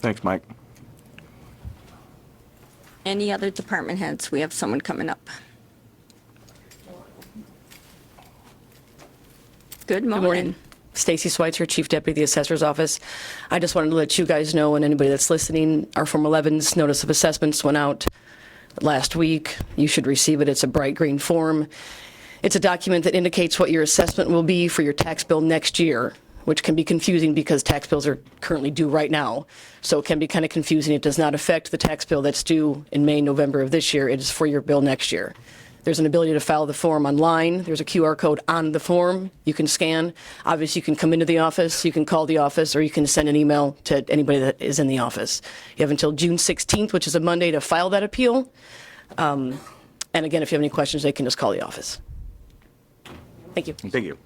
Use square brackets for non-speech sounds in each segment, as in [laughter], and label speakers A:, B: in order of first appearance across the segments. A: Thanks, Mike.
B: Any other department heads? We have someone coming up. Good
C: Good morning.
B: morning.
C: Stacy Switzer, Chief Deputy of the Assessor's Office. I just wanted to let you guys know and anybody that's listening, our Form 11's notice of assessments went out last week. You should receive it. It's a bright green form. It's a document that indicates what your assessment will be for your tax bill next year, which can be confusing because tax bills are currently due right now. So it can be kind of confusing. It does not affect the tax bill that's due in May, November of this year. It is for your bill next year. There's an ability to file the form online. There's a QR code on the form you can scan. Obviously, you can come into the office, you can call the office, or you can send an email to anybody that is in the office. You have until June 16th, which is a Monday, to file that appeal. Um, And again, if you have any questions, they can just call the office. Thank you.
A: Thank you.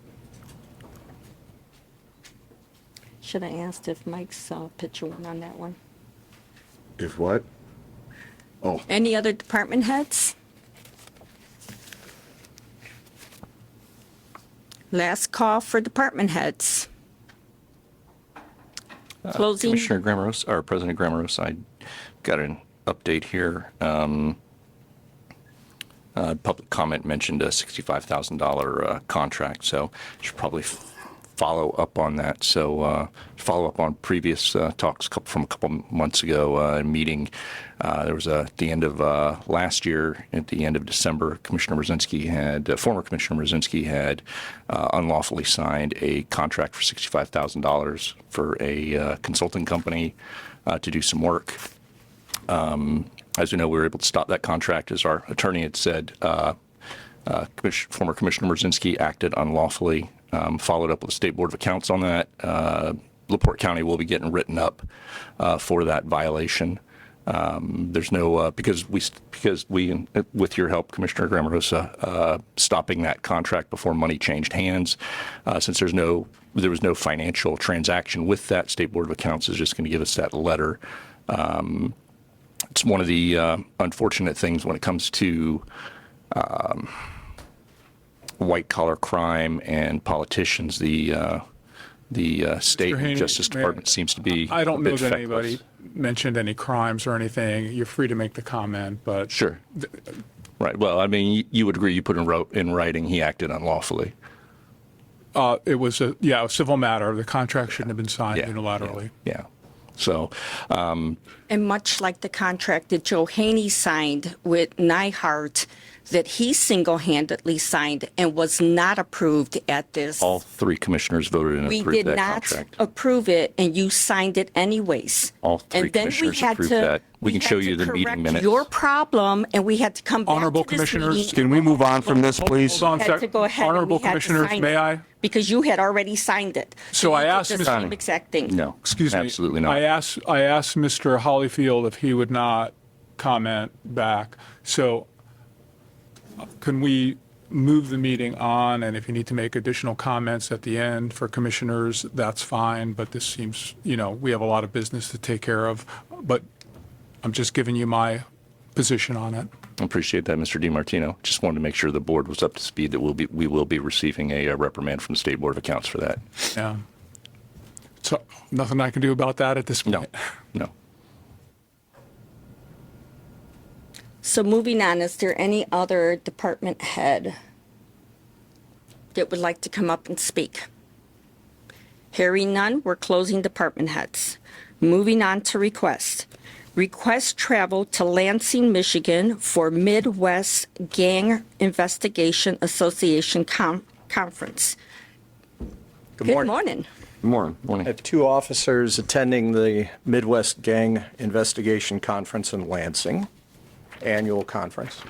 B: Should I asked if Mike's uh, picture went on that one?
D: If what? Oh,
B: Any other department heads? Last call for department heads. Closing,
E: Commissioner Grammeros, or President Grammeros, I got an update here. Um, uh, Public comment mentioned a $65,000 uh, contract, so should probably f- follow up on that. So uh, follow up on previous uh, talks coup- from a couple months ago, uh, meeting, uh, there was a, at the end of uh, last year, at the end of December, Commissioner Brzezinski had, uh, former Commissioner Brzezinski had uh, unlawfully signed a contract for $65,000 for a uh, consulting company uh, to do some work. As we know, we were able to stop that contract, as our attorney had said. uh, uh, Commiss- Former Commissioner Merzinski acted unlawfully, um, followed up with the State Board of Accounts on that. Uh, LaPorte County will be getting written up uh, for that violation. Um, There's no, uh, because we, because we, with your help, Commissioner Grammerosa, uh, stopping that contract before money changed hands, uh, since there's no, there was no financial transaction with that, State Board of Accounts is just going to give us that letter Um, it's one of the uh, unfortunate things when it comes to um, white collar crime and politicians. The uh, the uh, state
F: Mr. Haney,
E: justice
F: may I-
E: department seems to be.
F: I
E: a
F: don't
E: bit
F: know that
E: feckless.
F: anybody mentioned any crimes or anything. You're free to make the comment, but.
E: Sure. Right. Well, I mean, you, you would agree. You put in wrote in writing he acted unlawfully.
F: Uh, it was a, yeah, a civil matter. The contract shouldn't have been signed
E: Yeah,
F: unilaterally.
E: Yeah. So um,
B: and much like the contract that Joe Haney signed with Nyhart, that he single-handedly signed and was not approved at this.
E: all three commissioners voted and
B: We
E: approved
B: did
E: that
B: not Oh.
E: contract.
B: approve it, and you signed it anyways.
E: All three
B: And then we
E: commissioners
B: had
E: approved
B: to-
E: that. We can
B: had
E: show
B: to
E: you the meeting
B: correct
E: minutes.
B: Your problem, and we had to come back to
F: Honorable
B: this
F: commissioners,
B: meeting.
A: Can we move on from this,
F: Hold-
A: please?
F: Hold on,
B: Had to
F: sec-
B: go ahead and we
F: honorable
B: had to
F: commissioners,
B: sign
F: may
B: it,
F: I?
B: Because you had already signed it.
F: So I
B: you did
F: asked
B: the
F: Ms.
B: same Exact thing.
E: No.
F: Excuse me.
E: Absolutely not.
F: I asked, I asked Mr. Hollyfield if he would not comment back. So can we move the meeting on? And if you need to make additional comments at the end for commissioners, that's fine. But this seems, you know, we have a lot of business to take care of. But I'm just giving you my position on it.
E: Appreciate that, Mr. DiMartino. Just wanted to make sure the board was up to speed that we'll be, we will be receiving a uh, reprimand from the State Board of Accounts for that.
F: Yeah. So nothing I can do about that at this [laughs]
E: No,
F: point.
E: no.
B: So moving on, is there any other department head that would like to come up and speak? Hearing none, we're closing department heads. Moving on to request. Request travel to Lansing, Michigan for Midwest Gang Investigation Association Con- Conference. Good morning.
A: Good morning.
E: Morning.
G: I have two officers attending the Midwest Gang Investigation Conference in Lansing, annual conference.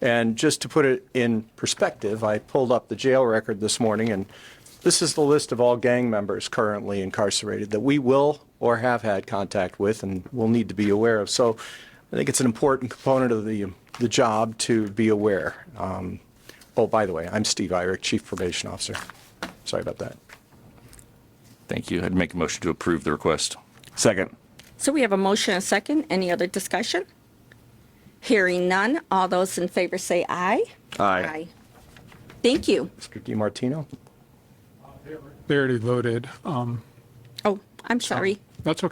G: And just to put it in perspective, I pulled up the jail record this morning, and this is the list of all gang members currently incarcerated that we will or have had contact with and will need to be aware of. So I think it's an important component of the, the job to be aware. Um, Oh, by the way, I'm Steve Irick, Chief Probation Officer. Sorry about that.
E: Thank you. I'd make a motion to approve the request.
A: Second.
B: So we have a motion and a second. Any other discussion? Hearing none, all those in favor say aye.
A: Aye.
B: Thank you.
G: Mr. DiMartino?
F: They already voted. Um,
B: Oh, I'm sorry.
F: That's okay.